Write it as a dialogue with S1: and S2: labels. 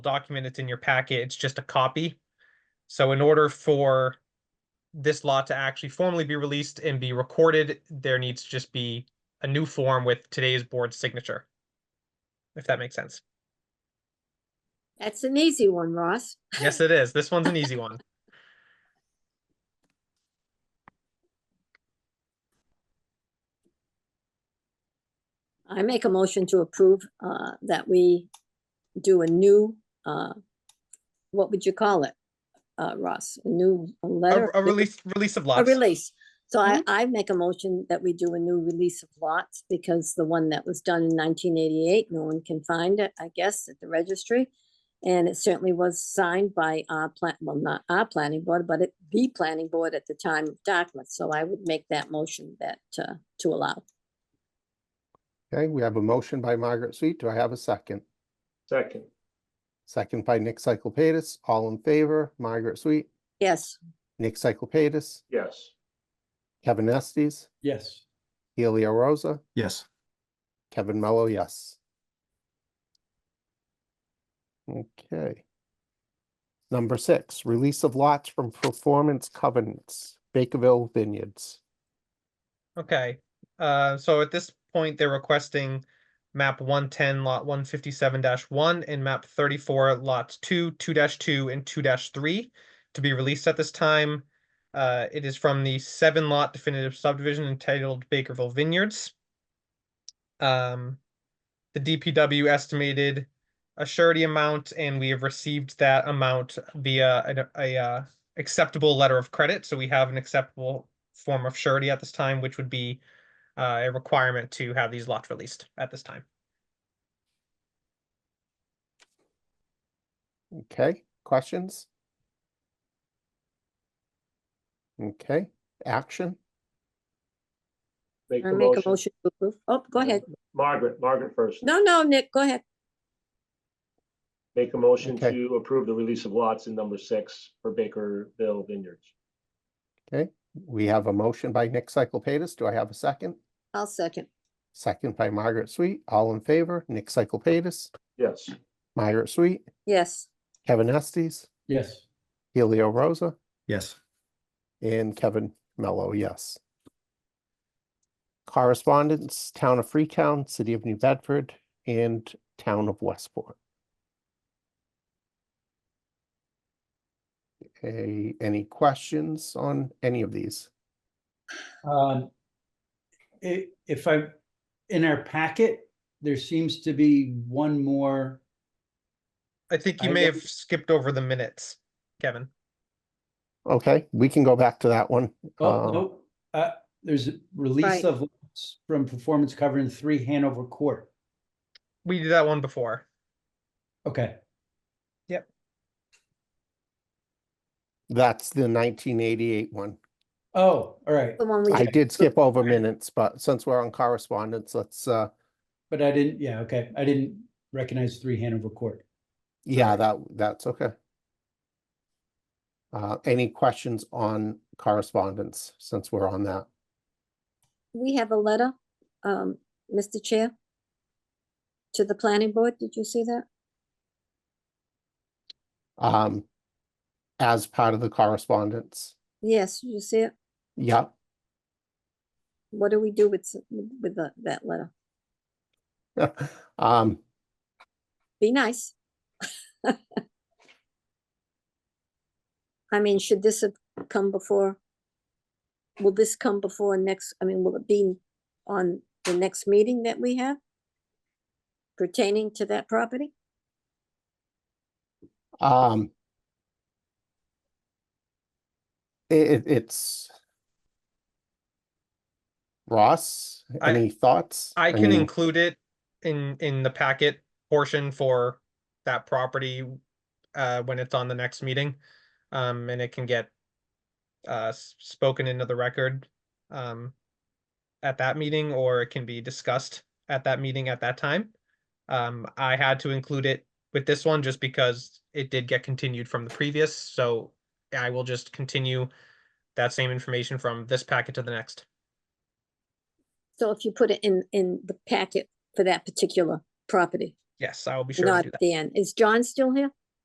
S1: document that's in your packet, it's just a copy. So in order for this lot to actually formally be released and be recorded, there needs to just be a new form with today's board signature. If that makes sense.
S2: That's an easy one, Ross.
S1: Yes, it is. This one's an easy one.
S2: I make a motion to approve uh, that we do a new, uh, what would you call it, uh, Ross? A new
S1: A,
S2: a letter?
S1: a release, release of
S2: A
S1: lots.
S2: release. So I, I make a motion that we do a new release of lots because the one that was done in 1988, no one can find it, I guess, at the registry. And it certainly was signed by our plant, well, not our planning board, but it, the planning board at the time of Dartmouth. So I would make that motion that, uh, to allow.
S3: Okay, we have a motion by Margaret Sweet. Do I have a second?
S4: Second,
S3: Second by Nick Cyclepatis. All in favor, Margaret Sweet,
S2: Yes.
S3: Nick Cyclepatis,
S4: yes.
S3: Kevin Estes,
S5: Yes.
S3: Helio Rosa,
S5: Yes.
S3: Kevin Mello, yes. Okay. Number six, release of lots from performance covenants, Bakerville Vineyards.
S1: Okay, uh, so at this point, they're requesting map one ten lot one fifty-seven one and map thirty-four lots two, two two and two three to be released at this time. Uh, it is from the seven lot definitive subdivision entitled Bakerville Vineyards. Um, the DPW estimated a surety amount and we have received that amount via an- a, uh, acceptable letter of credit, so we have an acceptable form of surety at this time, which would be uh, a requirement to have these lots released at this time.
S3: Okay, questions? Okay, action?
S4: Make
S2: I
S4: the
S2: make a
S4: motion.
S2: motion to approve. Oh, go ahead.
S4: Margaret, Margaret first.
S2: No, no, Nick, go ahead.
S4: Make a motion
S3: Okay.
S4: to approve the release of lots in number six for Bakerville Vineyards.
S3: We have a motion by Nick Cyclepatis. Do I have a second?
S2: I'll second.
S3: Second by Margaret Sweet. All in favor, Nick Cyclepatis,
S4: Yes,
S3: Margaret Sweet,
S2: Yes,
S3: Kevin Estes,
S5: Yes.
S3: Helio Rosa,
S5: Yes.
S3: and Kevin Mello, yes. Correspondence, Town of Freetown, City of New Bedford, and Town of Westport. Okay, any questions on any of these?
S6: Um, i- if I, in our packet, there seems to be one more,
S1: I think you
S6: I
S1: may
S6: will-
S1: have skipped over the minutes, Kevin.
S3: Okay, we can go back to that one.
S6: oh,
S3: Um,
S6: no, uh, there's a release
S2: Right.
S6: of lots from performance cover in three Hanover Court.
S1: We did that one before.
S6: Okay,
S3: That's the nineteen eighty-eight one.
S6: oh, all right,
S2: the one we,
S3: I did skip over minutes, but since we're on correspondence, let's, uh,
S6: but I didn't, yeah, okay, I didn't recognize three Hanover Court.
S3: yeah, that, that's okay. Uh, any questions on correspondence, since we're on that?
S2: we have a letter, um, Mr. Chair, to the planning board. Did you see that?
S3: Um, as part of the correspondence,
S2: Yes, you see it?
S3: yeah,
S2: What do we do with, s- with the- that letter?
S3: um,
S2: Be nice. I mean, should this have come before? Will this come before next, I mean, will it be on the next meeting that we have pertaining to that property?
S3: um. It, it's. Ross,
S1: I-
S3: any thoughts?
S1: I can
S3: mean-
S1: include it in, in the packet portion for that property uh, when it's on the next meeting. Um, and it can get uh, s- spoken into the record um, at that meeting, or it can be discussed at that meeting at that time. Um, I had to include it with this one just because it did get continued from the previous, so I will just continue that same information from this packet to the next.
S2: So if you put it in, in the packet for that particular property,
S1: Yes, I will be sure to
S2: Not
S1: do that.
S2: Dan. Is John still here?